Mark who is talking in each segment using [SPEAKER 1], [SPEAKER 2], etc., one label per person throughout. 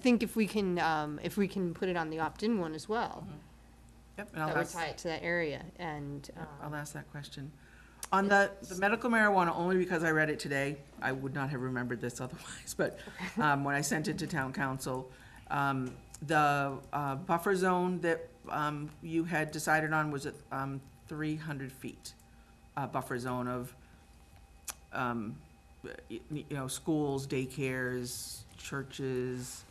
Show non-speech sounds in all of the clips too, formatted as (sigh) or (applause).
[SPEAKER 1] think if we can, um, if we can put it on the opt-in one as well,
[SPEAKER 2] Yep, and
[SPEAKER 1] that
[SPEAKER 2] I'll
[SPEAKER 1] would
[SPEAKER 2] ask,
[SPEAKER 1] tie it to that area, and,
[SPEAKER 2] yep,
[SPEAKER 1] um,
[SPEAKER 2] I'll ask that question. On the, the medical marijuana, only because I read it today, I would not have remembered this (laughs) otherwise, but, um, when I sent it to town council, um, the, uh, buffer zone that, um, you had decided on was at, um, three hundred feet. A buffer zone of, um, y- you know, schools, daycares, churches,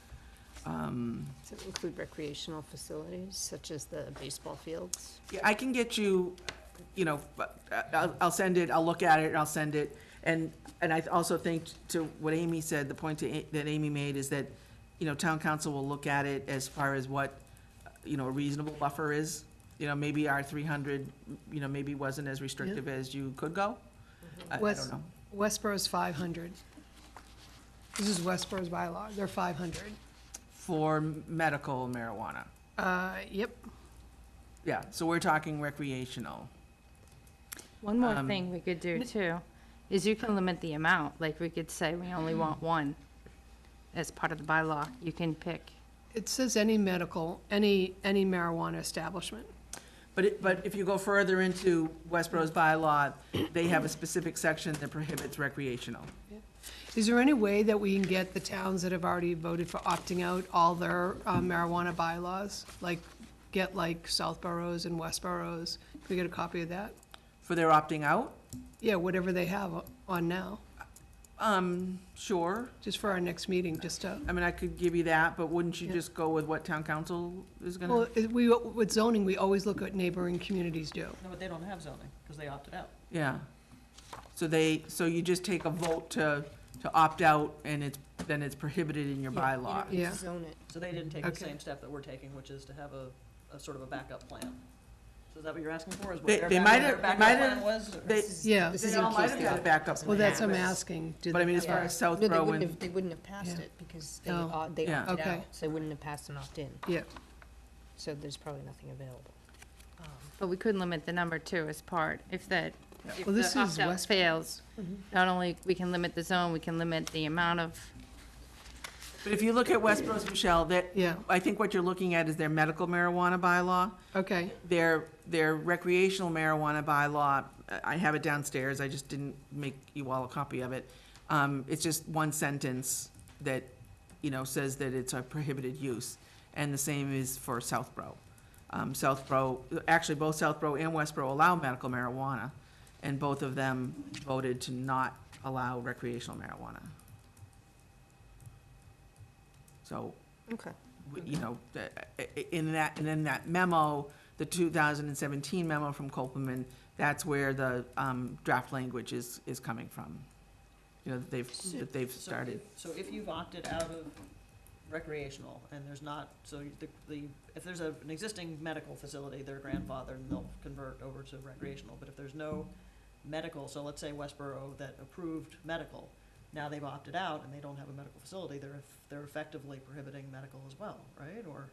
[SPEAKER 2] um,
[SPEAKER 1] does it include recreational facilities such as the baseball fields?
[SPEAKER 2] Yeah, I can get you, you know, I- I'll, I'll send it, I'll look at it, and I'll send it. And, and I also think to what Amy said, the point to A- that Amy made is that, you know, town council will look at it as far as what, you know, a reasonable buffer is. You know, maybe our three hundred, you know, maybe wasn't as restrictive as you could go. I I
[SPEAKER 3] Was-
[SPEAKER 2] don't know.
[SPEAKER 3] Westboro's five hundred. This is Westboro's bylaw, they're five hundred.
[SPEAKER 2] For medical marijuana.
[SPEAKER 3] Uh, yep,
[SPEAKER 2] Yeah, so we're talking recreational.
[SPEAKER 4] One more
[SPEAKER 2] Um,
[SPEAKER 4] thing we could do too, is you can limit the amount, like we could say we only want one as part of the bylaw, you can pick.
[SPEAKER 3] it says any medical, any, any marijuana establishment.
[SPEAKER 2] But it, but if you go further into Westboro's bylaw, they have a specific section that prohibits recreational.
[SPEAKER 3] Is there any way that we can get the towns that have already voted for opting out all their uh, marijuana bylaws? Like, get like Southborough's and Westborough's, can we get a copy of that?
[SPEAKER 2] For their opting out?
[SPEAKER 3] Yeah, whatever they have on now,
[SPEAKER 2] Um, sure.
[SPEAKER 3] just for our next meeting, just to,
[SPEAKER 2] I mean, I could give you that, but wouldn't you
[SPEAKER 3] Yeah.
[SPEAKER 2] just go with what town council is
[SPEAKER 3] well,
[SPEAKER 2] gonna?
[SPEAKER 3] it- we, with zoning, we always look at neighboring communities do.
[SPEAKER 5] No, but they don't have zoning, because they opted out.
[SPEAKER 2] Yeah. So they, so you just take a vote to, to opt out and it's, then it's prohibited in your
[SPEAKER 1] Yeah, you
[SPEAKER 2] bylaw.
[SPEAKER 1] don't need to
[SPEAKER 3] Yeah.
[SPEAKER 1] Zone it.
[SPEAKER 5] So they didn't take the
[SPEAKER 3] Okay.
[SPEAKER 5] same step that we're taking, which is to have a, a sort of a backup plan. So is that what you're asking for, is what
[SPEAKER 2] They-
[SPEAKER 5] their
[SPEAKER 2] they
[SPEAKER 5] back-
[SPEAKER 2] might
[SPEAKER 5] their
[SPEAKER 2] have- they
[SPEAKER 5] backup
[SPEAKER 2] might
[SPEAKER 5] plan
[SPEAKER 2] have-
[SPEAKER 5] was? or-
[SPEAKER 2] They,
[SPEAKER 3] Yeah.
[SPEAKER 1] This
[SPEAKER 2] they
[SPEAKER 1] is
[SPEAKER 2] all
[SPEAKER 1] in
[SPEAKER 2] might
[SPEAKER 1] case
[SPEAKER 2] have
[SPEAKER 1] they
[SPEAKER 2] got a
[SPEAKER 1] don't-
[SPEAKER 2] backup
[SPEAKER 3] Well, that's,
[SPEAKER 2] plan.
[SPEAKER 3] I'm asking. do
[SPEAKER 2] But I
[SPEAKER 3] they-
[SPEAKER 2] mean, as far
[SPEAKER 1] Yeah.
[SPEAKER 2] as South
[SPEAKER 1] No, they
[SPEAKER 2] Row
[SPEAKER 1] wouldn't
[SPEAKER 2] and,
[SPEAKER 1] have, they wouldn't have passed it, because they,
[SPEAKER 3] Oh.
[SPEAKER 1] op- they
[SPEAKER 2] Yeah.
[SPEAKER 1] opted
[SPEAKER 3] Okay.
[SPEAKER 1] out, so they wouldn't have passed an opt-in,
[SPEAKER 3] Yeah,
[SPEAKER 1] so there's probably nothing available. Um,
[SPEAKER 4] But we could limit the number too as part, if that, if
[SPEAKER 3] Well, this
[SPEAKER 4] the
[SPEAKER 3] is
[SPEAKER 4] opt-out
[SPEAKER 3] West-
[SPEAKER 4] fails, not only we can limit the zone, we can limit the amount of,
[SPEAKER 2] but if you look at Westboro's, Michelle, that,
[SPEAKER 3] yeah,
[SPEAKER 2] I think what you're looking at is their medical marijuana bylaw.
[SPEAKER 3] okay,
[SPEAKER 2] Their, their recreational marijuana bylaw, I have it downstairs, I just didn't make you all a copy of it. Um, it's just one sentence that, you know, says that it's a prohibited use, and the same is for Southborough. Um, Southborough, actually, both Southborough and Westborough allow medical marijuana, and both of them voted to not allow recreational marijuana. So,
[SPEAKER 1] Okay.
[SPEAKER 2] w- you know, the- i- i- in that, and in that memo, the two thousand and seventeen memo from Copeland, that's where the, um, draft language is, is coming from. You know, that they've, that they've
[SPEAKER 5] so
[SPEAKER 2] started.
[SPEAKER 5] if- So if you've opted out of recreational, and there's not, so you- the, the, if there's a, an existing medical facility, their grandfather, and they'll convert over to recreational, but if there's no medical, so let's say Westboro that approved medical, now they've opted out and they don't have a medical facility, they're, they're effectively prohibiting medical as well, right? Or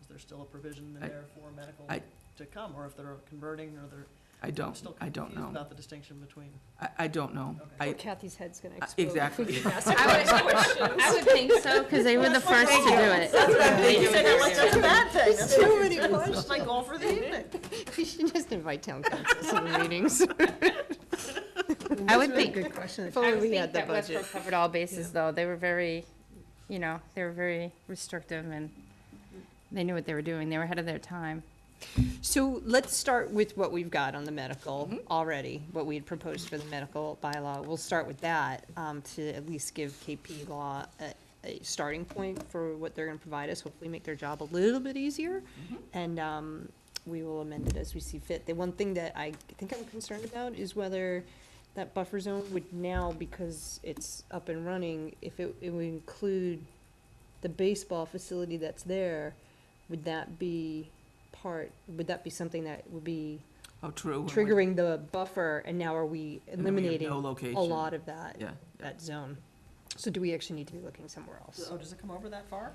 [SPEAKER 5] is there still a provision
[SPEAKER 2] I-
[SPEAKER 5] in there for medical
[SPEAKER 2] I-
[SPEAKER 5] to come, or if they're converting, or they're,
[SPEAKER 2] I
[SPEAKER 5] I'm
[SPEAKER 2] don't,
[SPEAKER 5] still
[SPEAKER 2] I don't
[SPEAKER 5] confused
[SPEAKER 2] know.
[SPEAKER 5] about the distinction (laughs) between,
[SPEAKER 2] I, I don't know.
[SPEAKER 5] Okay.
[SPEAKER 2] I,
[SPEAKER 1] Kathy's head's gonna
[SPEAKER 2] Uh,
[SPEAKER 1] explode. if we
[SPEAKER 2] exactly.
[SPEAKER 5] (laughs)
[SPEAKER 1] keep
[SPEAKER 2] (laughs)
[SPEAKER 1] asking
[SPEAKER 4] I
[SPEAKER 1] (laughs)
[SPEAKER 4] would- (laughs)
[SPEAKER 1] questions.
[SPEAKER 4] I would think so, because they were the first to do it.
[SPEAKER 5] You said that like that's a bad thing. That's
[SPEAKER 1] Too many
[SPEAKER 2] (laughs)
[SPEAKER 5] (laughs) just my goal for the evening.
[SPEAKER 1] (laughs) We should just invite town councils to the meetings. If
[SPEAKER 4] I would think,
[SPEAKER 3] good question.
[SPEAKER 4] I would
[SPEAKER 1] only we
[SPEAKER 4] think
[SPEAKER 1] had the
[SPEAKER 4] that
[SPEAKER 1] budget.
[SPEAKER 4] Westboro covered all bases, though. They were very, you know, they were very restrictive and they knew what they were doing. They were ahead of their time.
[SPEAKER 1] So let's start with what we've got on the medical already, what we had proposed for the medical bylaw. We'll start with that, um, to at least give KP Law a, a starting point for what they're gonna provide us, hopefully make their job a little bit easier. And, um, we will amend it as we see fit. The one thing that I think I'm concerned about is whether that buffer zone would now, because it's up and running, if it, it would include the baseball facility that's there, would that be part, would that be something that would be
[SPEAKER 2] oh, true.
[SPEAKER 1] triggering the buffer, and now are we
[SPEAKER 2] And then we have
[SPEAKER 1] eliminating a
[SPEAKER 2] No location.
[SPEAKER 1] lot of that,
[SPEAKER 2] Yeah,
[SPEAKER 1] that zone? So do we actually need to be looking somewhere else?
[SPEAKER 5] Oh, does it come over that far?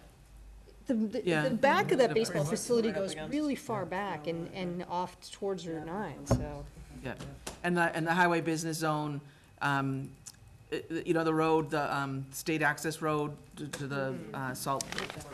[SPEAKER 1] The, the,
[SPEAKER 2] Yeah.
[SPEAKER 1] the back of that
[SPEAKER 2] Yeah.
[SPEAKER 1] baseball
[SPEAKER 5] Right.
[SPEAKER 1] facility
[SPEAKER 5] Right up
[SPEAKER 1] goes
[SPEAKER 5] against-
[SPEAKER 1] really far
[SPEAKER 5] yeah.
[SPEAKER 1] back and,
[SPEAKER 5] Yeah.
[SPEAKER 1] and off towards Route
[SPEAKER 5] Yeah.
[SPEAKER 1] nine, so.
[SPEAKER 2] and the, and the highway business zone, um,
[SPEAKER 5] Mm-hmm.
[SPEAKER 2] uh, you know, the road, the um, state access road to to the uh, salt